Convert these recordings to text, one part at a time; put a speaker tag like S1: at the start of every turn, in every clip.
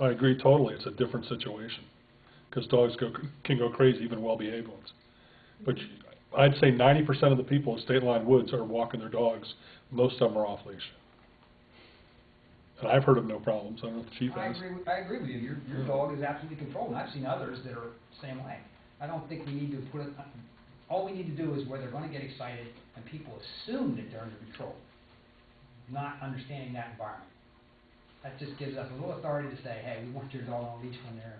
S1: I agree totally, it's a different situation, because dogs go, can go crazy, even well-behaved ones. But you- I'd say ninety percent of the people in state line woods are walking their dogs, most of them are off-leash. And I've heard of no problems, I don't know if the chief
S2: I
S1: has.
S2: agree, with- I agree with you, your, your dog is absolutely controlled, and I've seen others that are same way. I don't think we need to put it, all we need to do is where they're gonna get excited, and people assume that they're under control, not understanding that environment. That just gives us a little authority to say, hey, we want your dog on a leash when they're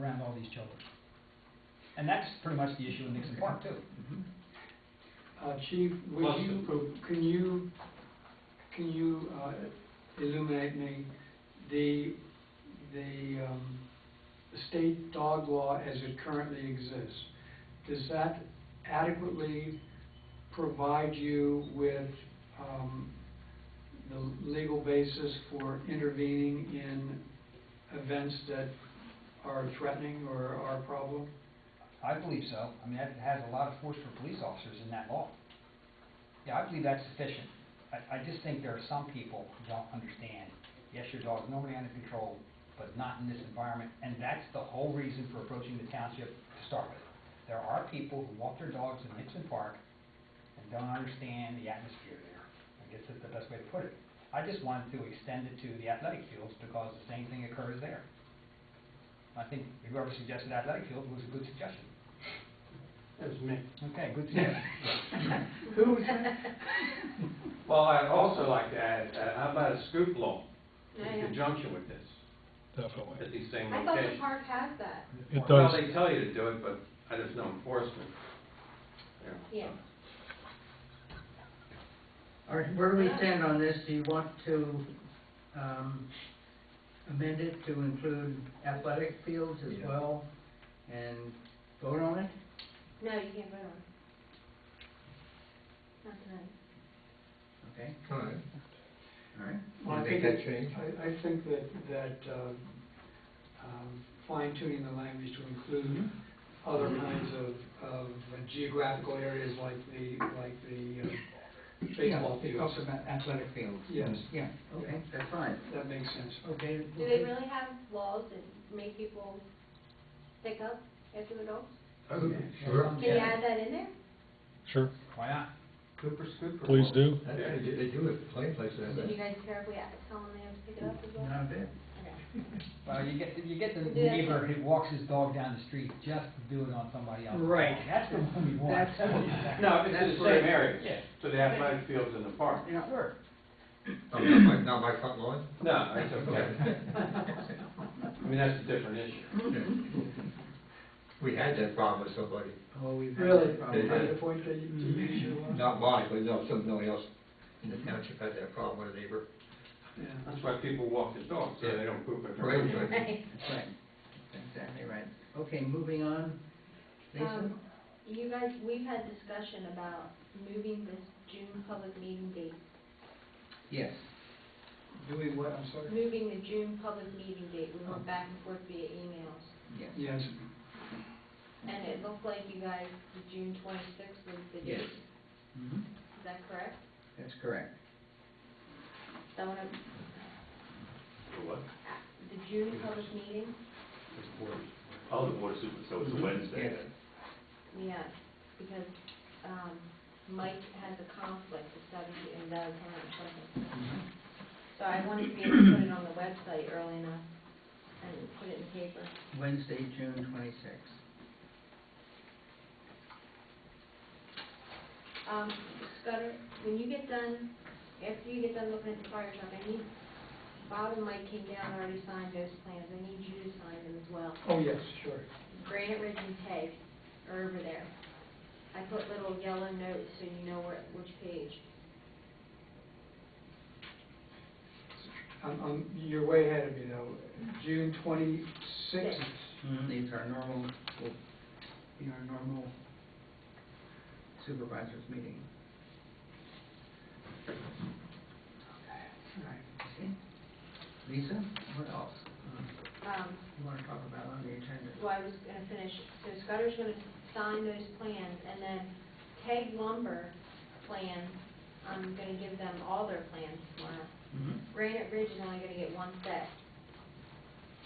S2: around all these children. And that's pretty much the issue in Nixon Park too.
S3: Uh, Chief, would
S4: Plus
S3: you, can you, can you uh, illuminate me the, the um, the state dog law as it currently exists? Does that adequately provide you with um, the legal basis for intervening in events that are threatening or are a problem?
S2: I believe so. I mean, that has a lot of force for police officers in that law. Yeah, I believe that's sufficient. I, I just think there are some people who don't understand, yes, your dog's normally under control, but not in this environment, and that's the whole reason for approaching the township to start with. There are people who walk their dogs in Nixon Park and don't understand the atmosphere there. I guess that's the best way to put it. I just wanted to extend it to the athletic fields because the same thing occurs there. I think whoever suggested athletic field was a good suggestion.
S4: That was me.
S2: Okay, good to hear. Who was that?
S4: Well, I'd also like to add, uh, how about a scoop law
S5: Yeah,
S4: in
S5: yeah.
S4: conjunction with this,
S1: Definitely.
S4: at these same
S5: I thought the
S4: locations?
S5: park has that.
S1: It
S4: Well,
S1: does,
S4: they tell you to do it, but I just know enforcement.
S5: Yeah.
S6: All right, where do we stand on this? Do you want to um, amend it to include athletic fields as
S4: Yeah.
S6: well and vote on it?
S5: No, you can't vote on it. Not tonight.
S6: Okay,
S7: All right.
S6: all
S3: Well,
S6: right.
S3: I
S7: Wanna make
S3: think-
S7: that change?
S3: I, I think that, that uh, um, fine tuning the language to include other kinds of, of geographical areas like the, like the uh, baseball fields.
S6: Yeah, It talks about athletic fields.
S3: Yes,
S6: Yeah, okay, that's fine.
S3: that makes sense.
S6: Okay.
S5: Do they really have laws that make people pick up after the dog?
S7: Okay,
S6: Um,
S7: sure.
S5: Can you add that in there?
S1: sure,
S2: Why not?
S4: Cooper scooper.
S1: please
S4: law.
S1: do.
S7: That's how they do- they do it, plain places, I
S5: So do you
S7: think.
S5: guys care if we add- tell them they have to pick it up as well?
S6: Not a bit.
S5: Okay.
S2: Well, you get, you get the
S5: Yeah.
S2: neighbor who walks his dog down the street just to do it on somebody else.
S6: Right.
S2: That's the one we want.
S6: That's-
S4: No, it's in
S6: That's
S4: the
S6: right.
S4: same
S2: Yeah.
S4: area, to the athletic fields in the park.
S6: Yeah.
S2: Sure.
S7: Oh, not my, not my front lawn?
S4: No, that's okay. I mean, that's a different issue.
S7: We had that problem with somebody,
S6: Oh, we've. had
S3: Really,
S6: that
S3: uh,
S6: problem.
S3: to the point that you, you use your law?
S7: not mine, but no, somebody else in the township had that problem with a neighbor.
S3: Yeah.
S4: That's why people walk their dogs, so they don't poop at their own.
S7: Right, right.
S6: That's right, exactly right. Okay, moving on. Lisa?
S5: Um, You guys, we've had discussion about moving this June public meeting date,
S6: Yes.
S3: Do we what, I'm sorry?
S5: moving the June public meeting date. We went back and forth via emails.
S6: Yes.
S3: Yes,
S5: And it looked like you guys, the June twenty-sixth was the
S6: Yes.
S5: date. Is
S6: Mhm.
S5: that correct?
S6: That's correct.
S5: That one, of-
S8: For what?
S5: the June public meeting?
S8: Oh, the board of super, so it's a Wednesday
S6: Yes.
S8: then?
S5: Yes, because, um, Mike has a conflict the seventh in Valley County or something.
S6: Mm-hmm.
S5: So I wanted to be able to put it on the website early enough and put it in paper.
S6: Wednesday, June twenty-sixth.
S5: Um, Scudder, when you get done, after you get done looking at the fire truck, I need, Bob and Mike came down and already signed those plans. I need you to sign them as well.
S3: oh, yes, sure.
S5: Granite Ridge and Peg are over there. I put little yellow notes so you know where, which page.
S3: I'm, I'm, you're way ahead of me though. June twenty-sixth,
S6: Mm-hmm. These are normal, you know, normal supervisors meeting. Okay. Lisa, what else uh,
S5: Um,
S6: you want to talk about on the agenda?
S5: well, I was gonna finish, so Scudder's gonna sign those plans, and then Peg Lumber plans,
S6: Mm-hmm.
S5: I'm gonna give them all their plans tomorrow. Granite Ridge is only gonna get one set,